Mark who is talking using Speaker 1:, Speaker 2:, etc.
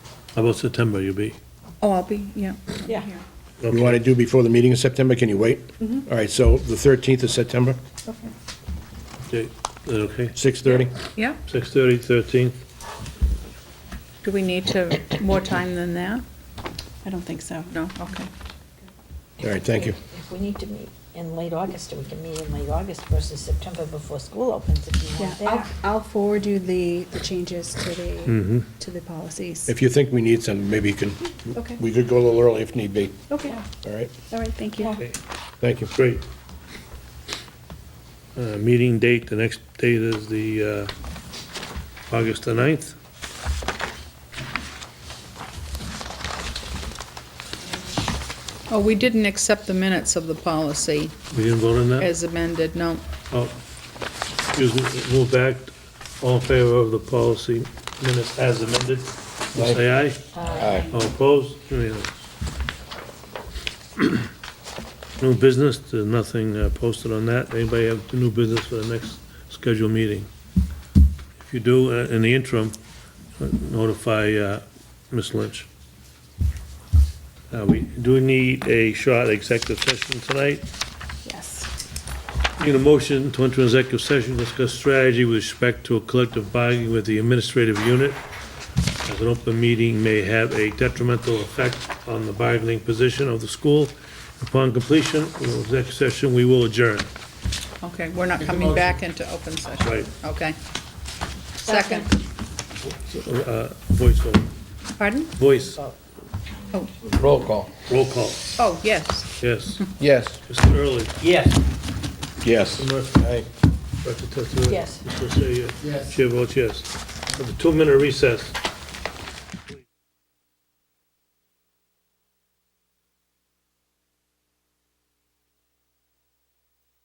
Speaker 1: How about September, you'll be?
Speaker 2: Oh, I'll be, yeah.
Speaker 3: Yeah.
Speaker 1: Okay.
Speaker 4: You want to do before the meeting in September? Can you wait?
Speaker 3: Mm-hmm.
Speaker 4: All right, so the 13th of September,
Speaker 2: Okay.
Speaker 1: Okay, is that okay?
Speaker 4: 6:30?
Speaker 2: Yeah,
Speaker 1: 6:30, 13th?
Speaker 2: do we need to, more time than that?
Speaker 3: I don't think so.
Speaker 2: No, okay.
Speaker 4: All right, thank you.
Speaker 5: If we need to meet in late August, we can meet in late August versus September before school opens if you
Speaker 3: Yeah,
Speaker 5: want
Speaker 3: I'll,
Speaker 5: that.
Speaker 3: I'll forward you the, the changes to the, to the policies.
Speaker 4: If you think we need some, maybe you can,
Speaker 3: Okay,
Speaker 4: we could go a little early if need be,
Speaker 3: okay,
Speaker 4: all right?
Speaker 3: all right, thank you.
Speaker 5: Yeah.
Speaker 4: Thank you.
Speaker 1: Great. Uh, Meeting date, the next date is the uh, August the 9th.
Speaker 2: Oh, we didn't accept the minutes of the policy
Speaker 1: We didn't vote on that?
Speaker 2: as amended, no.
Speaker 1: Oh, Excuse me, move back. All in favor of the policy minutes as amended? Say aye.
Speaker 4: Aye.
Speaker 1: All opposed? Unanimous. New business, there's nothing uh, posted on that. Anybody have new business for the next scheduled meeting? If you do, uh, in the interim, notify uh, Ms. Lynch. Uh, We do need a short executive session tonight.
Speaker 3: Yes.
Speaker 1: Need a motion to enter executive session, to discuss strategy with respect to a collective bargaining with the administrative unit. As an open meeting may have a detrimental effect on the bargaining position of the school. Upon completion of the executive session, we will adjourn.
Speaker 2: Okay, we're not coming back into open session.
Speaker 1: Right.
Speaker 2: Okay. Second,
Speaker 1: Uh, Voice vote,
Speaker 2: pardon?
Speaker 1: voice,
Speaker 4: Oh. Roll call.
Speaker 1: roll call,
Speaker 2: Oh, yes.
Speaker 1: yes.
Speaker 4: Yes.
Speaker 1: Mr. Early,
Speaker 5: Yes.
Speaker 4: Yes.
Speaker 1: Mr. Murphy,
Speaker 4: Aye.
Speaker 1: Director Tessera.
Speaker 5: Yes.
Speaker 1: Mr. Yes. Chair votes yes. Have a two-minute recess.